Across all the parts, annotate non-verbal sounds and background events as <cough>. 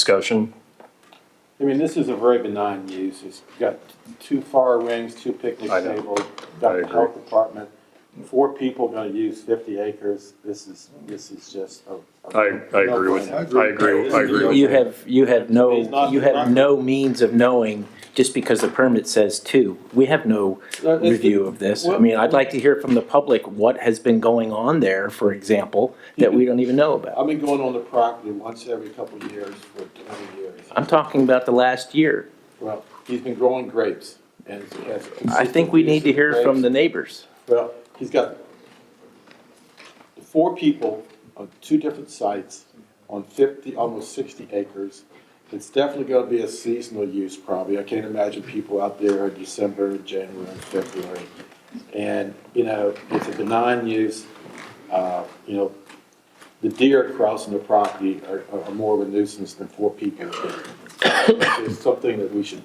Discussion? I mean, this is a very benign use. It's got two fire rings, two picnic I know. tables, I got the agree. health department. Four people gonna use fifty acres. This is, this is just a. a- I, I agree with, I agree, I agree with You have, you have He's not- no, you not- have no means of knowing, just because the permit says two. We have no No, it's- review of this. I mean, I'd like to hear from the public what has been going on there, for example, that we don't even know about. I've been going on the property once every couple of years for twenty years. I'm talking about the last year. Well, he's been growing grapes and has. I think we need to hear from the consistent neighbors. use of grapes. Well, he's got four people on two different sites on fifty, almost sixty acres. It's definitely gonna be a seasonal use probably. I can't imagine people out there in December, January, and February. And, you know, it's a benign use. Uh, you know, the deer crossing the property are, are more of a nuisance than four people. <coughs> It's something that we should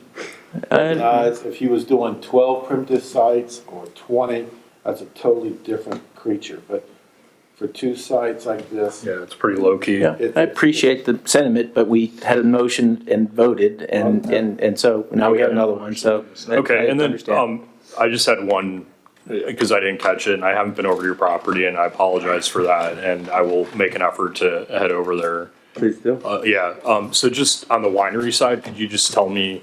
Uh, recognize if he was doing twelve primitive sites or twenty, that's a totally different creature, but for two sites like this, Yeah, it's pretty low-key. yeah, I appreciate the sentiment, but we had a motion and voted, and, and, and so now we have another one, so. I- I Um, Okay, and then, understand. um, I just had one, because I didn't catch it, and I haven't been over to your property, and I apologize for that, and I will make an effort to head over there. Please do. Uh, yeah, um, so just on the winery side, could you just tell me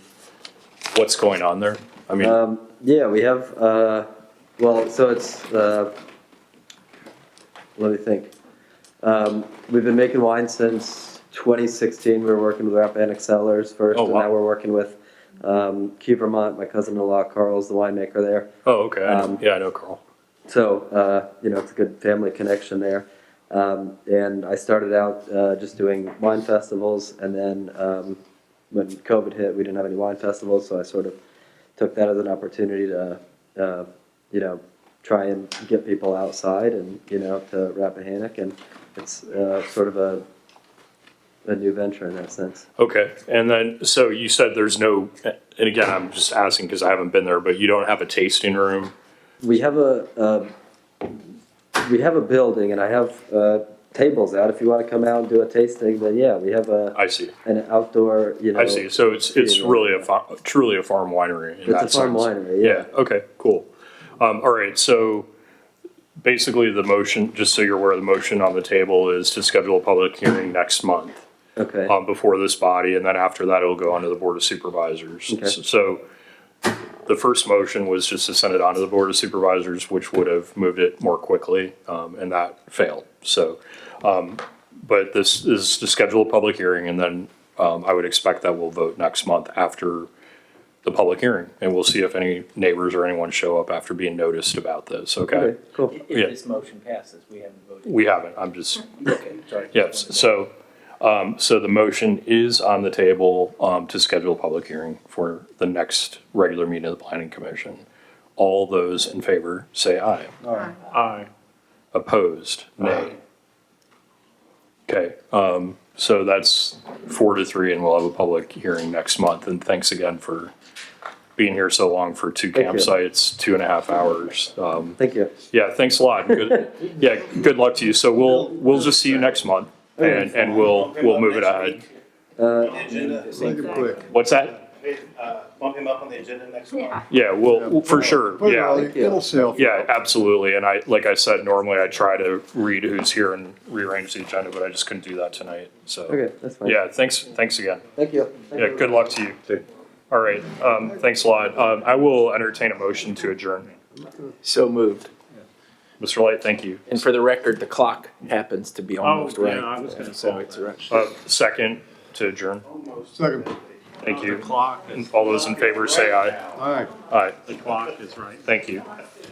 what's going on there? I mean, Um, yeah, we have, uh, well, so it's, uh, let me think. Um, we've been making wine since 2016. We were working with Rappahannock Cellars first, Oh, wow. and now we're working with um, Key Vermont. My cousin-in-law Carl's the winemaker there. oh, okay, I know- um, yeah, I know Carl. So, uh, you know, it's a good family connection there. Um, and I started out uh, just doing wine festivals, and then um, when COVID hit, we didn't have any wine festivals, so I sort of took that as an opportunity to, uh, you know, try and get people outside and, you know, to Rappahannock. And it's uh, sort of a, a new venture in that sense. Okay, and then, so you said there's no, and again, I'm just asking because I haven't been there, but you don't have a tasting room? We have a, uh, we have a building, and I have uh, tables out. If you want to come out and do a tasting, then yeah, we have a. I see. an outdoor, you know. I see. So it's it's Yeah. really a fa- truly a farm winery. In It's a that farm sense. winery, yeah. Okay. Cool. Um, all right. So basically, the motion, just so you're aware, the motion on the table is to schedule a public hearing next month Okay. um, before this body, and then after that, it'll go on to the board of supervisors. Okay. S- So the first motion was just to send it on to the board of supervisors, which would have moved it more quickly, um, and that failed. So, um, but this is to schedule a public hearing, and then, um, I would expect that we'll vote next month after the public hearing, and we'll see if any neighbors or anyone show up after being noticed about this, okay? Okay, cool. If Yeah. this motion passes, we haven't voted. We haven't, I'm just Okay, sorry. Yes, so, um, so the motion is on the table, um, to schedule a public hearing for the next regular meeting of the planning commission. All those in favor say aye. Aye. Aye. Opposed, nay. Okay, um, so that's four to three and we'll have a public hearing next month. And thanks again for being here so long for two Thank you. campsites, two and a half hours. Um, Thank you. yeah, thanks a lot. Good, yeah, good luck to you. So we'll, we'll just see you next month and, and we'll, we'll move it ahead. Uh, Agenda, Make it quick. What's that? uh, bump him up on the agenda next month. Yeah, Yeah. well, for sure, Put it all- yeah. It'll sell. Yeah, absolutely. And I, like I said, normally I try to read who's here and rearrange the agenda, but I just couldn't do that tonight, so. okay, that's fine. Yeah, thanks, thanks again. Thank you. Thank Yeah, you. good luck to you. All right, um, thanks a lot. Um, I will entertain a motion to adjourn. So moved. Mr. Light, thank you. And for the record, the clock happens to be almost Oh, yeah, right. I was gonna So call it's right. Uh, second to adjourn. Second, Thank you. clock, All those in favor say aye. all right. Aye, the clock is right. thank you.